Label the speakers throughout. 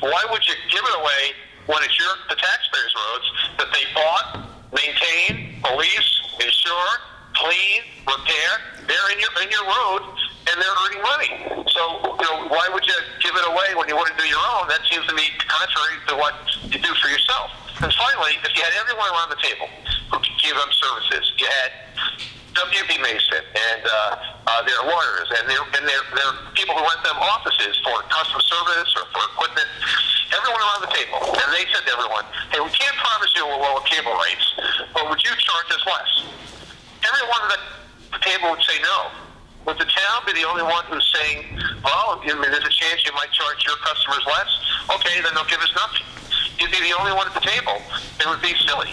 Speaker 1: Why would you give it away when it's your the taxpayers' roads that they bought, maintain, police, insure, clean, repair? They're in your in your road and they're earning money. So you know, why would you give it away when you want to do your own? That seems to me contrary to what you do for yourself. And finally, if you had everyone around the table who could give them services, you had W.B. Mason and uh, uh, their lawyers and their and their, their people who rent them offices for customer service or for equipment. Everyone around the table, and they said to everyone, "Hey, we can't promise you we'll lower cable rates, but would you charge us less?" Everyone at the table would say no. Would the town be the only one who's saying, "Well, I mean, there's a chance you might charge your customers less"? Okay, then they'll give us nothing. You'd be the only one at the table. It would be silly.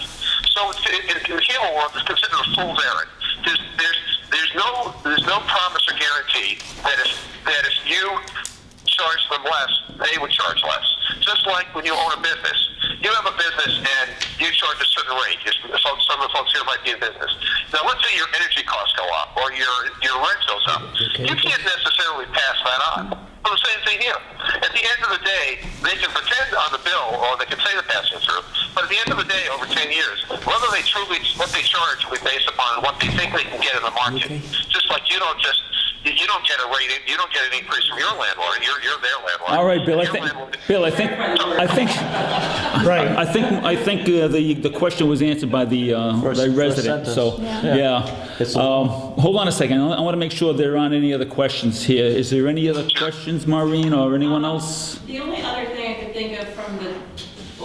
Speaker 1: So it's- in, in the cable world, it's considered a fool's errand. There's, there's, there's no there's no promise or guarantee that if that if you charge them less, they would charge less. Just like when you own a business, you have a business and you charge a certain rate. Just- Some, some of the folks here might be in business. Now, let's say your energy costs go up or your your rent goes up. You can't necessarily pass that on. Well, the same thing here. At the end of the day, they can pretend on the bill, or they can say they're passing through. But at the end of the day, over 10 years, whether they truly what they charge will be based upon what they think they can get in the market. Just like you don't just you you don't get a rate, you don't get an increase from your landlord. You're you're their landlord.
Speaker 2: All right, Bill. I
Speaker 1: Your
Speaker 2: think,
Speaker 1: landlord-
Speaker 2: Bill, I think, I think,
Speaker 3: Right.
Speaker 2: I think, I think uh, the the question was answered by the, uh,
Speaker 3: First-
Speaker 2: by
Speaker 3: first
Speaker 2: resident.
Speaker 3: sentence.
Speaker 2: So
Speaker 3: Yeah.
Speaker 2: yeah.
Speaker 3: It's a-
Speaker 2: Um, hold on a second. I want to make sure there aren't any other questions here. Is there any other questions, Maureen, or anyone else?
Speaker 4: The only other thing I could think of from the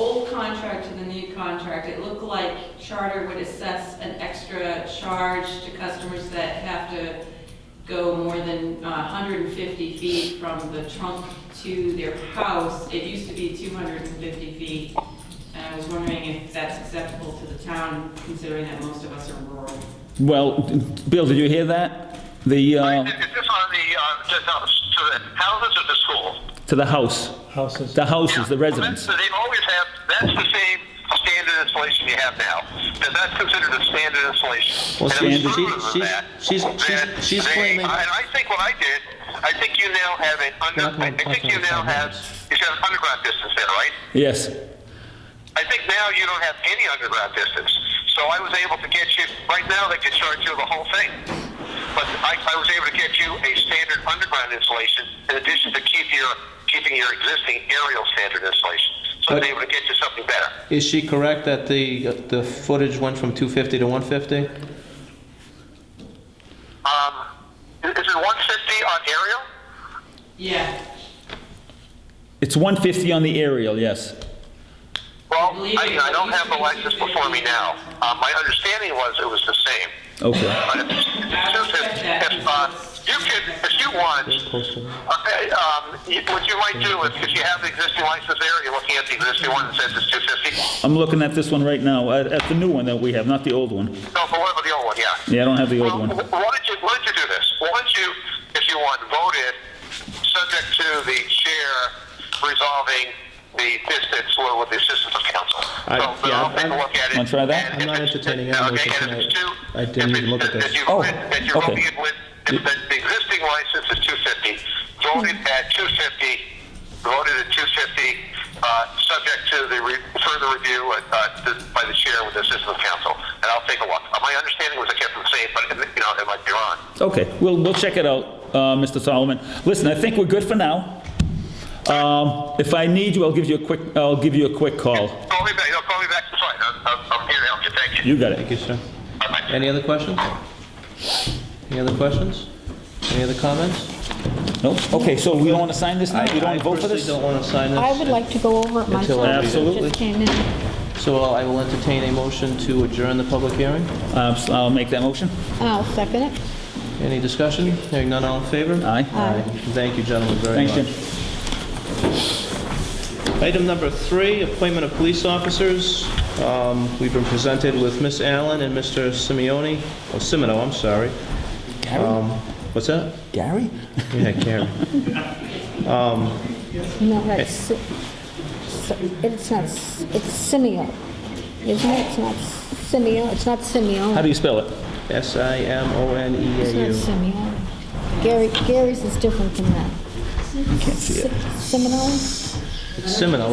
Speaker 4: old contract to the new contract, it looked like Charter would assess an extra charge to customers that have to go more than uh, 150 feet from the trunk to their house. It used to be 250 feet, and I was wondering if that's acceptable to the town, considering that most of us are rural.
Speaker 2: Well, Bill, did you hear that? The
Speaker 1: Is
Speaker 2: uh,
Speaker 1: is this on the uh, to the to the houses or the school?
Speaker 2: to the house,
Speaker 3: Houses.
Speaker 2: the houses, the
Speaker 1: Well,
Speaker 2: residents.
Speaker 1: that's- They always have, that's the same standard installation you have now. Because that's considered a standard installation. And
Speaker 3: Well,
Speaker 1: it's
Speaker 2: standard-
Speaker 1: further than
Speaker 3: she's-
Speaker 1: that,
Speaker 3: she's- she's-
Speaker 1: that
Speaker 3: she's- she's
Speaker 1: they-
Speaker 3: claiming-
Speaker 1: I- And I think what I did, I think you now have an
Speaker 3: You're
Speaker 1: under,
Speaker 3: not
Speaker 1: I
Speaker 3: gonna
Speaker 1: I think
Speaker 3: talk
Speaker 1: you
Speaker 3: about
Speaker 1: now
Speaker 3: that.
Speaker 1: have, you should have underground distance there, right?
Speaker 2: Yes.
Speaker 1: I think now you don't have any underground distance. So I was able to get you, right now they could charge you the whole thing. But I, I was able to get you a standard underground installation in addition to keep your, keeping your existing aerial standard installation. So I was
Speaker 3: But-
Speaker 1: able to get you something better.
Speaker 3: Is she correct that the, the footage went from 250 to 150?
Speaker 1: Um, is it 150 on aerial?
Speaker 4: Yeah,
Speaker 2: It's 150 on the aerial, yes.
Speaker 1: Well, I, I don't have the license before me now. Uh, my understanding was it was the same.
Speaker 2: Okay.
Speaker 1: But if, if, if, uh, you could, if you want, okay, um, you- what you might do is, if you have the existing license there, you're looking at the existing one that says it's 250.
Speaker 2: I'm looking at this one right now, at, at the new one that we have, not the old one.
Speaker 1: No, but what about the old one? Yeah.
Speaker 2: Yeah, I don't have the old
Speaker 1: Well,
Speaker 2: one.
Speaker 1: wh- Why don't you, why don't you do this? Why don't you, if you want, vote it, subject to the chair resolving the distance with with the assistance of council.
Speaker 3: I-
Speaker 1: So, then
Speaker 3: yeah,
Speaker 1: I'll take a
Speaker 3: I'm-
Speaker 1: look at it.
Speaker 2: Wanna try
Speaker 1: and
Speaker 2: that?
Speaker 3: I'm
Speaker 1: if
Speaker 3: not
Speaker 1: it's-
Speaker 3: entertaining
Speaker 1: okay,
Speaker 3: any motion
Speaker 1: and if it's
Speaker 3: tonight.
Speaker 1: two-
Speaker 3: I didn't
Speaker 1: if
Speaker 3: even look
Speaker 1: it's-
Speaker 3: at this.
Speaker 1: If you
Speaker 2: Oh,
Speaker 1: vote it- if you're
Speaker 2: okay.
Speaker 1: voting it with, if the the existing license is 250, vote it
Speaker 2: Hmm.
Speaker 1: at 250, vote it at 250, uh, subject to the re- further review uh, uh, th- by the chair with the assistance of council, and I'll take a look. Uh, My understanding was I kept them safe, but, you know, it might be wrong.
Speaker 2: Okay, we'll, we'll check it out, uh, Mr. Solomon. Listen, I think we're good for now. Um, If I need you, I'll give you a quick, I'll give you a quick call.
Speaker 1: Call me back, no, call me back, it's fine, I'm, I'm I'm here to help you, thank you.
Speaker 2: You got
Speaker 3: Thank
Speaker 2: it.
Speaker 3: you, sir.
Speaker 1: Bye-bye.
Speaker 3: Any other questions? Any other questions? Any other comments?
Speaker 2: No? Okay, so we don't want to sign this now? We don't want to vote for
Speaker 3: I
Speaker 2: this?
Speaker 3: personally don't want to sign this.
Speaker 5: I would like to go over it
Speaker 3: Until
Speaker 5: myself.
Speaker 3: I read it.
Speaker 2: Absolutely.
Speaker 5: Just came in.
Speaker 3: So I will entertain a motion to adjourn the public hearing.
Speaker 2: Uh, so I'll make that motion.
Speaker 5: I'll Oh, second it.
Speaker 3: Any discussion? Hearing none, all in favor?
Speaker 2: Aye.
Speaker 5: Aye.
Speaker 3: Thank you, gentlemen, very
Speaker 2: Thanks,
Speaker 3: much.
Speaker 2: Jim.
Speaker 3: Item number three, appointment of police officers. Um, We've been presented with Miss Allen and Mr. Simeone, oh, Simino, I'm sorry. Um, What's that?
Speaker 2: Gary?
Speaker 3: Yeah, Gary.
Speaker 5: No, that's, Si- Si- it's not, S- it's Simeo, isn't it? It's not Simeo, it's not
Speaker 2: How
Speaker 5: Simeon.
Speaker 2: do you spell it?
Speaker 3: E
Speaker 5: It's not
Speaker 3: S-I-M-O-N-E-A-U.
Speaker 5: Simeon. Gary, Gary's is different than that. Can't see it. Seminole?
Speaker 3: It's Seminole.